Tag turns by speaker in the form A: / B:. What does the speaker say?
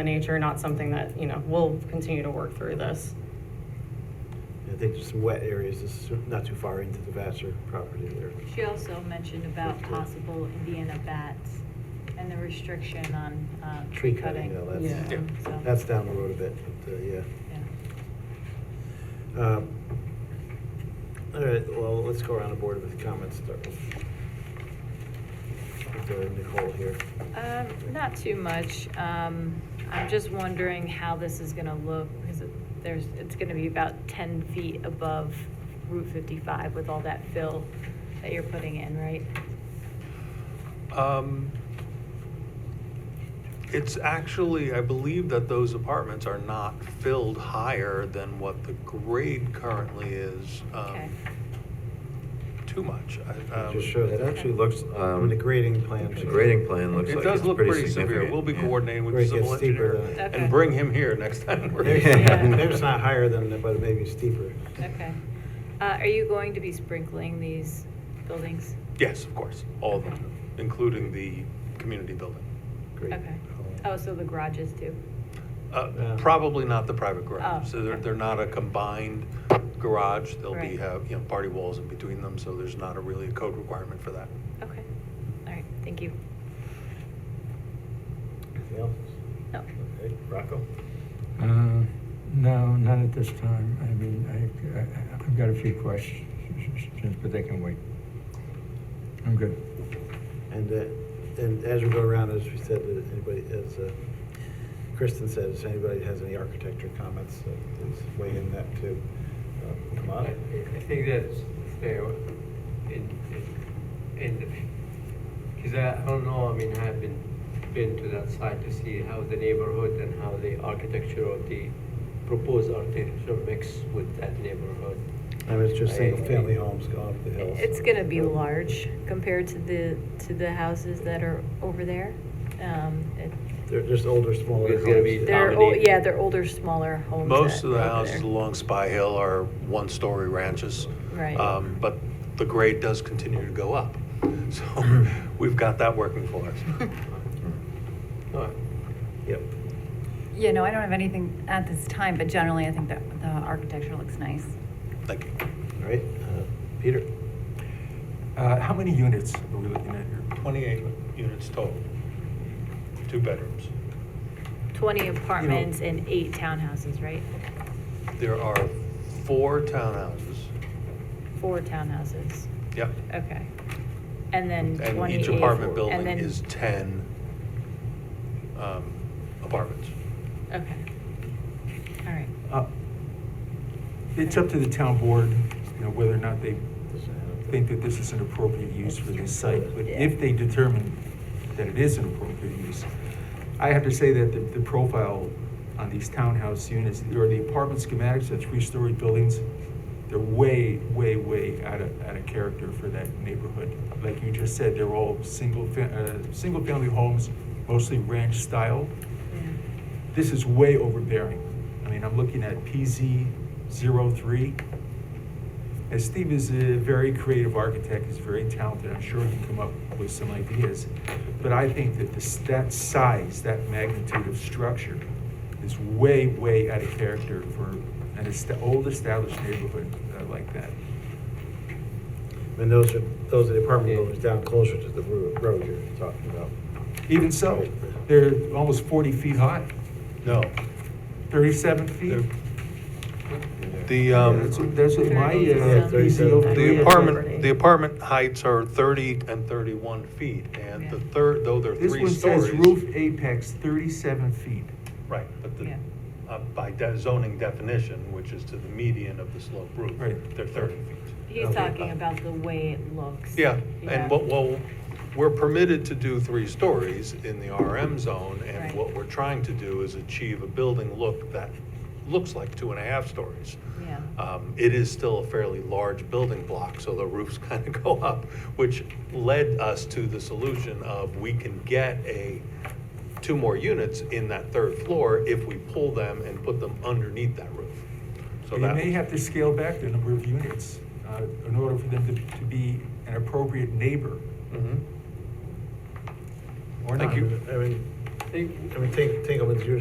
A: the nature, not something that, you know, we'll continue to work through this.
B: I think there's some wet areas, this is not too far into the Vassar property there.
C: She also mentioned about possible Indiana bats and the restriction on uh,
B: Tree cutting, yeah,
A: Yeah.
B: that's,
C: So,
B: that's down the road a bit, but, uh, yeah.
C: yeah.
B: Um, All right, well, let's go around the board with comments, start with with, uh, Nicole here.
C: Um, Not too much. Um, I'm just wondering how this is going to look, because it- there's, it's going to be about 10 feet above Route 55 with all that fill that you're putting in, right?
D: Um, It's actually, I believe that those apartments are not filled higher than what the grade currently is. um,
C: Okay.
D: Too much. I- um,
B: Just show
E: It
B: that,
E: actually looks, um.
B: the grading plan.
E: The grading plan looks like
D: It
E: it's
D: does look pretty severe.
E: significant,
D: We'll be
E: yeah.
D: coordinating with
B: Where
D: the
B: it gets
D: civil
B: steeper
D: engineer
B: than-
C: Okay.
D: and bring him here next time. we're-
B: Maybe
C: Yeah.
B: maybe it's not higher than, that, but maybe steeper.
C: Okay. Uh, Are you going to be sprinkling these buildings?
D: Yes, of course, all of
C: Okay.
D: them, including the community building.
B: Great.
C: Okay. Oh, so the garages too?
D: Uh,
B: Yeah.
D: Probably not the private
C: Oh,
D: garage. So they're,
C: okay.
D: they're not a combined garage. They'll be,
C: Right.
D: have, you know, party walls in between them, so there's not a really a code requirement for that.
C: Okay. All right, thank you.
B: Anything else?
C: Oh. No.
B: Okay, Rocco?
F: Uh, No, not at this time. I mean, I- I- I've got a few questions, but they can wait. I'm good.
B: And, uh, and as we go around, as we said, uh, anybody, as uh, Kristen said, if anybody has any architecture comments, uh, please weigh in that too. Uh, Come
G: I
B: on.
G: I think that's fair, and, and, because I don't know, I mean, I have been, been to that site to see how the neighborhood and how the architecture of the proposed architecture mix with that neighborhood.
B: I mean, it's just single-family homes going up the hill. so-
C: It's gonna be large compared to the, to the houses that are over there. Um, it-
B: They're just older, smaller homes.
G: It's gonna be
C: They're,
G: Dominate.
C: ol- yeah, they're older, smaller homes.
D: Most
C: that
D: of the
C: are over
D: houses
C: there.
D: along Spy Hill are one-story ranches.
C: Right.
D: Um, But the grade does continue to go up. So we've got that working for us.
G: No,
B: Yep.
H: Yeah, no, I don't have anything at this time, but generally, I think that the architecture looks nice.
D: Thank you.
B: All right, uh, Peter?
I: Uh, How many units are we looking at here?
D: 28 units total, two bedrooms.
C: Twenty apartments and eight townhouses, right?
D: There are four townhouses.
C: Four townhouses,
D: Yep.
C: okay. And then
D: And
C: twenty.
D: each apartment building
C: and then-
D: is 10 um, apartments.
C: Okay. All right,
I: Uh, It's up to the town board, you know, whether or not they think that this is an appropriate use for this site. But if they determine that it is an appropriate use, I have to say that the, the profile on these townhouse units, or the apartment schematics, the three-story buildings, they're way, way, way out of, out of character for that neighborhood. Like you just said, they're all single, fa- uh, single-family homes, mostly ranch style. This is way overbearing. I mean, I'm looking at PZ 03. And Steve is a very creative architect, he's very talented, I'm sure he can come up with some ideas. But I think that this, that size, that magnitude of structure is way, way out of character for an est- old established neighborhood uh, like that.
B: And those are, those are the apartment buildings down closer to the ro- road you're talking about.
I: Even so, they're almost 40 feet high,
D: No.
I: 37 feet.
D: The,
I: Yeah,
D: um,
I: That's what- that's what my uh,
C: Yeah,
I: PZ
B: 37.
I: over
D: The
C: Yeah.
D: apartment, the apartment heights are 30 and 31 feet, and the
C: Yeah.
D: third, though they're
I: This
D: three
I: one says
D: stories.
I: roof apex 37 feet.
D: Right, but the,
C: Yeah.
D: uh, by de- zoning definition, which is to the median of the slope roof,
I: Right.
D: they're 30 feet. uh,
C: he's
B: Okay.
C: talking about the way it looks.
D: Yeah,
C: Yeah.
D: and what, well, we're permitted to do three stories in the RM zone, and
C: Right.
D: what we're trying to do is achieve a building look that looks like two and a half stories.
C: Yeah.
D: Um, It is still a fairly large building block, so the roofs kind of go up, which led us to the solution of we can get a, two more units in that third floor if we pull them and put them underneath that roof. So
I: You
D: that
I: may have to scale back the number of units uh, in order for them to to be an appropriate neighbor
D: Mhm.
I: or not.
D: Thank you.
B: I mean,
G: I think
B: I mean, Tink- Tinkleman's usually